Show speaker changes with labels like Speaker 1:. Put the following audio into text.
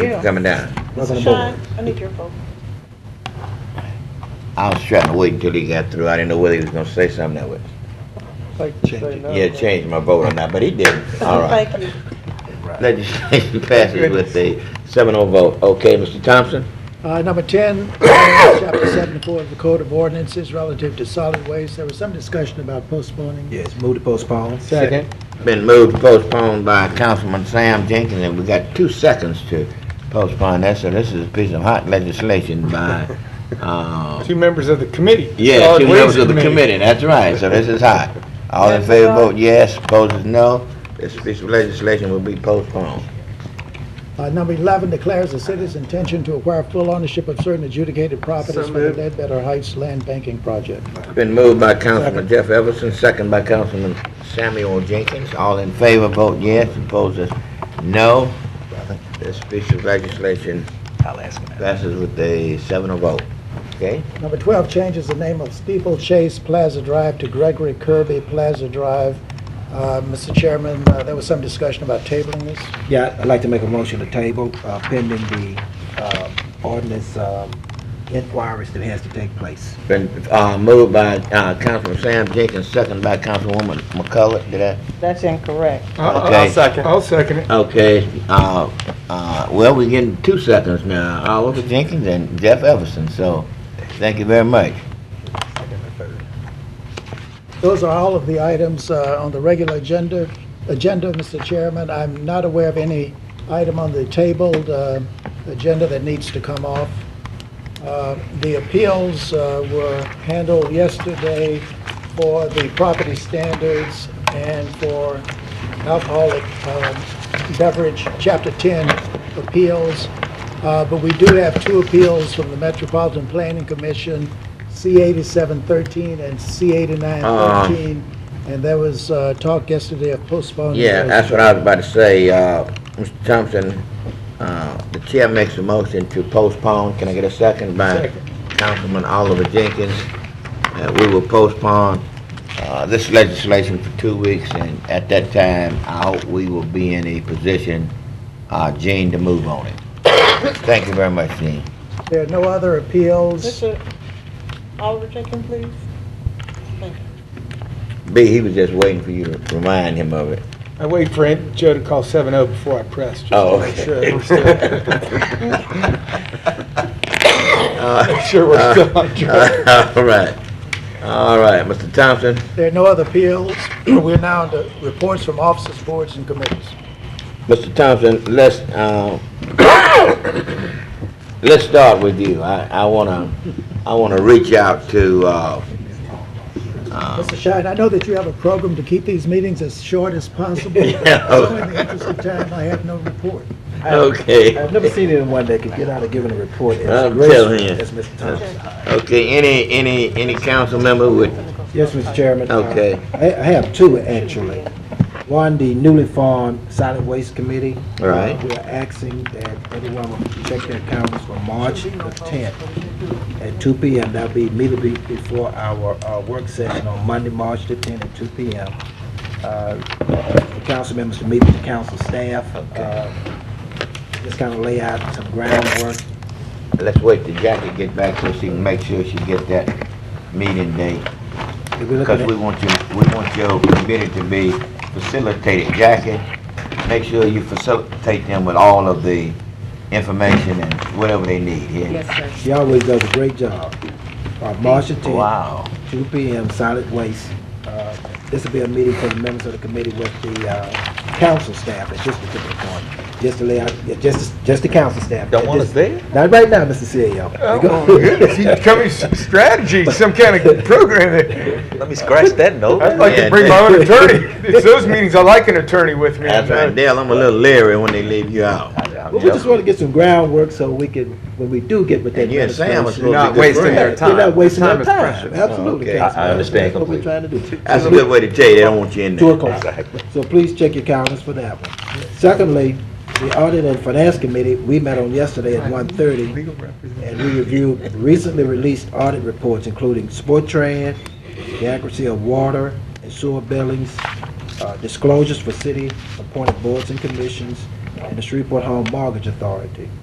Speaker 1: people coming down.
Speaker 2: Sean, I need your phone.
Speaker 1: I was trying to wait until he got through. I didn't know whether he was gonna say something that would, yeah, change my vote or not, but he didn't. All right.
Speaker 2: Thank you.
Speaker 1: Legislation passes with a seven oh vote. Okay, Mr. Thompson?
Speaker 3: Uh, Number 10, uh, Chapter 74 of the Code of Ordinances relative to solid waste. There was some discussion about postponing.
Speaker 4: Yes, move to postpone.
Speaker 1: Been moved, postponed by Councilman Sam Jenkins, and we got two seconds to postpone that, so this is a piece of hot legislation by, uh,
Speaker 5: Two members of the committee.
Speaker 1: yeah,
Speaker 5: Solid
Speaker 1: two members
Speaker 5: Waste
Speaker 1: of the committee, that's right, so this is hot. All in favor, vote yes, opposed, no. This piece of legislation will be postponed.
Speaker 3: Uh, Number 11 declares the city's intention to acquire full ownership of certain adjudicated properties for the
Speaker 5: moved.
Speaker 3: Ledbetter Heights Land Banking Project.
Speaker 1: Been moved by Councilman Jeff Everson, second by Councilman Samuel Jenkins. All in favor, vote yes. Opposed, is no. This piece of legislation
Speaker 4: I'll ask him.
Speaker 1: passes with a seven of vote. Okay?
Speaker 3: Number 12 changes the name of Steeple Chase Plaza Drive to Gregory Kirby Plaza Drive. Uh, Mr. Chairman, uh, there was some discussion about tabling this.
Speaker 4: Yeah, I'd like to make a motion to table uh, pending the uh, ordinance um, inquiries that has to take place.
Speaker 1: Been, uh, moved by, uh, Councilman Sam Jenkins, second by Councilwoman McCullough. Did I?
Speaker 2: That's incorrect.
Speaker 5: I'll- I'll-
Speaker 1: Okay.
Speaker 5: I'll second. I'll second it.
Speaker 1: Okay, uh, uh, well, we're getting two seconds now. Oliver Jenkins and Jeff Everson, so thank you very much.
Speaker 3: Those are all of the items uh, on the regular agenda, agenda, Mr. Chairman. I'm not aware of any item on the tabled uh, agenda that needs to come off. Uh, The appeals uh, were handled yesterday for the property standards and for alcoholic um, beverage, Chapter 10 appeals. Uh, But we do have two appeals from the Metropolitan Planning Commission, C-8713 and C-8913. And there was uh, talk yesterday of postponing.
Speaker 1: Yeah,
Speaker 3: those.
Speaker 1: that's what I was about to say, uh, Mr. Thompson, uh, the chair makes a motion to postpone, can I get a second by Councilman Oliver Jenkins? Uh, we will postpone, uh, this legislation for two weeks, and at that time, I hope we will be in a position, uh, Gene, to move on it. Thank you very much, Gene.
Speaker 3: There are no other appeals.
Speaker 2: Mr. Oliver Jenkins, please.
Speaker 1: B, he was just waiting for you to remind him of it.
Speaker 5: I wait for Aunt Joe to call seven oh before I press, just
Speaker 1: Oh,
Speaker 5: to make sure that we're still,
Speaker 1: Uh,
Speaker 5: make sure we're still on track.
Speaker 1: All right, all right, Mr. Thompson?
Speaker 3: There are no other appeals. We're now to reports from officers, boards, and committees.
Speaker 1: Mr. Thompson, let's, uh, let's start with you. I, I wanna, I wanna reach out to, uh,
Speaker 3: Mr. Shine, I know that you have a program to keep these meetings as short as possible.
Speaker 1: Yeah.
Speaker 3: So in the interest of time, I have no report.
Speaker 1: okay,
Speaker 4: I've never seen anyone that could get out of giving a report as
Speaker 1: I'm telling
Speaker 4: gracefully
Speaker 1: you.
Speaker 4: as Mr. Thompson.
Speaker 1: okay, any, any, any council member would,
Speaker 4: Yes, Mr. Chairman.
Speaker 1: Okay.
Speaker 4: Uh, I I have two, actually. One, the newly formed Solid Waste Committee.
Speaker 1: All right.
Speaker 4: We're asking that everyone will check their calendars for March the 10th at 2 PM. That'll be immediately before our uh, work session on Monday, March the 10th at 2 PM. Uh, The council members to meet with the council staff. uh, Just kind of lay out some groundwork.
Speaker 1: let's wait till Jackie get back so she can make sure she get that meeting date.
Speaker 4: If we look
Speaker 1: Because
Speaker 4: at-
Speaker 1: we want you, we want your committee to be facilitated. Jackie, make sure you facilitate them with all of the information and whatever they need here.
Speaker 4: She always does a great job. Uh, March the 10th.
Speaker 1: Wow.
Speaker 4: 2 PM, solid waste. Uh, This will be a meeting for the members of the committee with the uh, council staff at this particular point, just to lay out, yeah, just, just the council staff.
Speaker 5: Don't want
Speaker 4: At
Speaker 5: us
Speaker 4: this-
Speaker 5: there?
Speaker 4: Not right now, Mr. CEO.
Speaker 5: Oh, my goodness, he's coming with strategy, some kind of program. that-
Speaker 6: Let me scratch that note.
Speaker 5: I'd like
Speaker 1: Yeah.
Speaker 5: to bring my own attorney. It's those meetings, I like an attorney with me.
Speaker 1: That's right, Dale, I'm a little leery when they leave you out.
Speaker 4: But we just want to get some groundwork so we can, when we do get with that
Speaker 1: And you and Sam are
Speaker 4: administration.
Speaker 1: supposed to
Speaker 6: not
Speaker 1: be good
Speaker 6: wasting
Speaker 1: friends.
Speaker 6: their
Speaker 4: They're not
Speaker 6: time.
Speaker 4: wasting
Speaker 5: Time
Speaker 4: their
Speaker 5: is
Speaker 4: time.
Speaker 5: precious.
Speaker 4: Absolutely.
Speaker 1: Okay.
Speaker 4: Councilman.
Speaker 6: I- I understand
Speaker 4: That's what we're
Speaker 6: completely.
Speaker 4: trying to do.
Speaker 1: That's a good way to tell you, they don't want you in
Speaker 4: Two
Speaker 1: there.
Speaker 4: o'clock. So please check your calendars for that one. Secondly, the Audit and Finance Committee, we met on yesterday at 1:30. and we reviewed recently released audit reports, including Sportran, the accuracy of water and sewer billings, uh, disclosures for city-appointed boards and commissions, and the Shreveport Home Mortgage Authority